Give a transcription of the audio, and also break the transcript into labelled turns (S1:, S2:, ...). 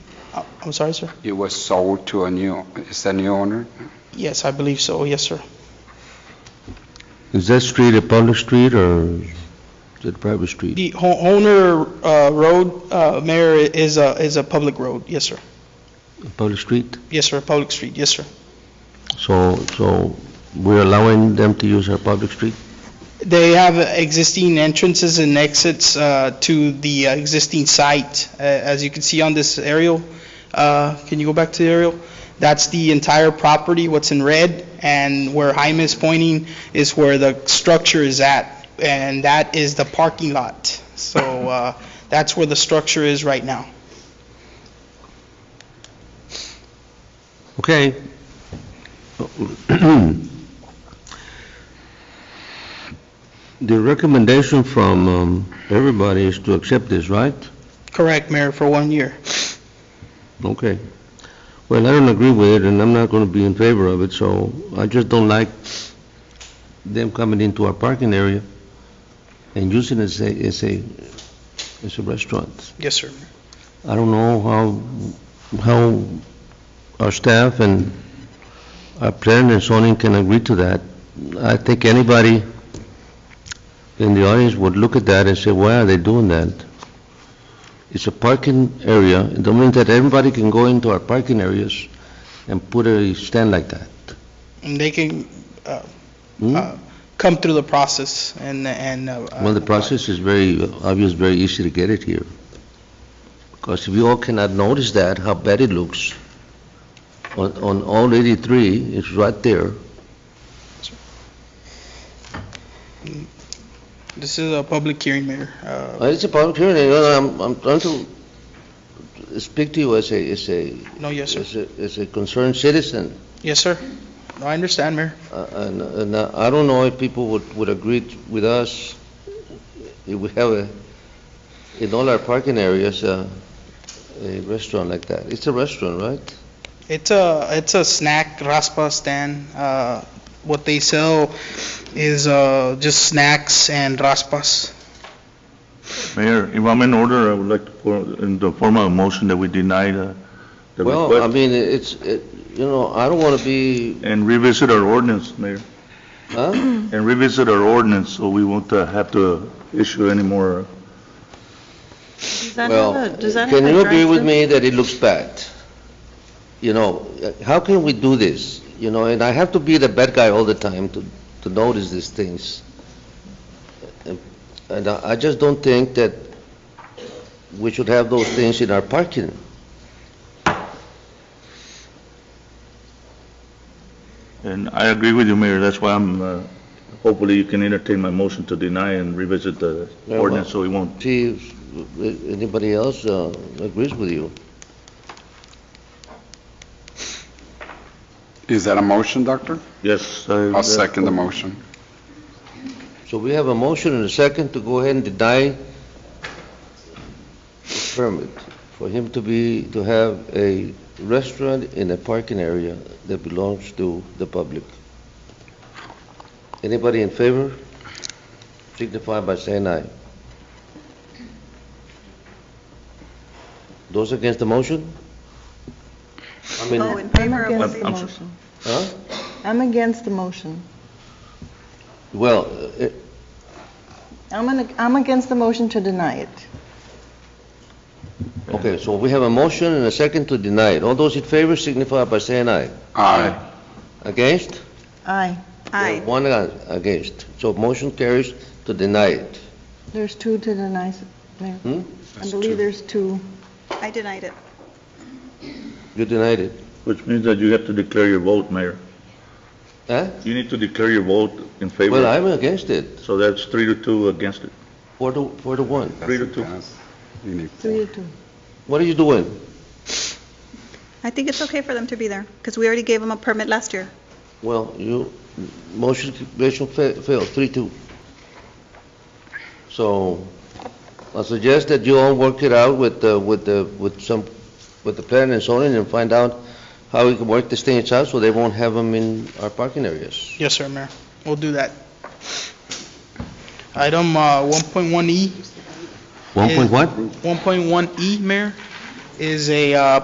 S1: Uh, I'm sorry, sir?
S2: It was sold to a new, is the new owner?
S1: Yes, I believe so, yes, sir.
S3: Is that street a public street or is it a private street?
S1: The ho- Honer uh, Road, uh, Mayor, is a, is a public road, yes, sir.
S3: A public street?
S1: Yes, sir, a public street, yes, sir.
S3: So, so we're allowing them to use our public street?
S1: They have existing entrances and exits uh, to the uh, existing site. Uh, As you can see on this aerial, uh, can you go back to the aerial? That's the entire property, what's in red, and where Jaime is pointing is where the structure is at, and that is the parking lot. So uh, that's where the structure is right now.
S3: Okay. The recommendation from um, everybody is to accept this, right?
S1: Correct, Mayor, for one year.
S3: Okay. Well, I don't agree with it, and I'm not going to be in favor of it, so I just don't like them coming into our parking area and using it as a, as a, as a restaurant.
S1: Yes, sir.
S3: I don't know how, how our staff and our planning and zoning can agree to that. I think anybody in the audience would look at that and say, why are they doing that? It's a parking area, it don't mean that everybody can go into our parking areas and put a stand like that.
S1: And they can uh,
S3: Hmm?
S1: uh, come through the process and, and. uh,
S3: Well, the process is very obvious, very easy to get it here. Because if you all cannot notice that, how bad it looks, on, on all 83, it's right there.
S1: This is a public hearing, Mayor. Uh,
S3: Uh, It's a public hearing, you know, I'm, I'm trying to speak to you as a, as a,
S1: No, yes, sir.
S3: as a, as a concerned citizen.
S1: Yes, sir. No, I understand, Mayor.
S3: Uh, And, and I don't know if people would, would agree t- with us, if we have a, in all our parking areas, uh, a restaurant like that. It's a restaurant, right?
S1: It's a, it's a snack raspa stand. Uh, What they sell is uh, just snacks and raspas.
S4: Mayor, if I'm in order, I would like to put in the form of a motion that we deny the the
S3: Well, I
S4: request
S3: mean, it's, it- you know, I don't want to be,
S4: and revisit our ordinance, Mayor,
S3: huh?
S4: and revisit our ordinance so we won't uh, have to issue any more.
S5: Does that
S3: Well,
S5: have a, does that have
S3: Can
S5: a
S3: you agree with
S5: drive-thru?
S3: me that it looks bad? You know, uh, how can we do this? You know, and I have to be the bad guy all the time to, to notice these things. And- And I I just don't think that we should have those things in our parking.
S4: And I agree with you, Mayor, that's why I'm, uh, hopefully you can entertain my motion to deny and revisit the
S3: Very well.
S4: ordinance so we won't.
S3: See if uh, anybody else uh, agrees with you.
S2: Is that a motion, Doctor?
S4: Yes.
S2: I'll second the motion.
S3: So we have a motion and a second to go ahead and deny the permit for him to be, to have a restaurant in a parking area that belongs to the public. Anybody in favor? Signify by saying aye. Those against the motion? I
S5: Oh,
S3: mean,
S5: in favor
S6: I'm against
S5: of the
S6: the
S4: I'm sorry.
S5: motion.
S6: motion.
S3: huh?
S6: I'm against the motion.
S3: Well, uh,
S6: I'm, an- I'm against the motion to deny it.
S3: okay, so we have a motion and a second to deny it. All those in favor signify by saying aye.
S2: Aye.
S3: Against?
S6: Aye.
S5: Aye.
S3: One a- against. So motion carries to deny it.
S6: There's two to deny, Mayor.
S3: Hmm?
S6: I believe there's two.
S5: I denied it.
S3: You denied it.
S4: Which means that you have to declare your vote, Mayor.
S3: Huh?
S4: You need to declare your vote in favor.
S3: Well, I'm against it.
S4: So that's three to two against it.
S3: Four to, four to one.
S4: Three to two.
S2: You need
S6: Three
S2: four.
S6: to two.
S3: What are you doing?
S5: I think it's okay for them to be there, because we already gave them a permit last year.
S3: Well, you, motion, motion fa- failed, three, two. So I suggest that you all work it out with, uh, with, the with some, with the planning and zoning and find out how we can work these things out so they won't have them in our parking areas.
S1: Yes, sir, Mayor. We'll do that. Item uh, 1.1E.
S3: One
S1: point what? 1.1E, Mayor, E, is a uh,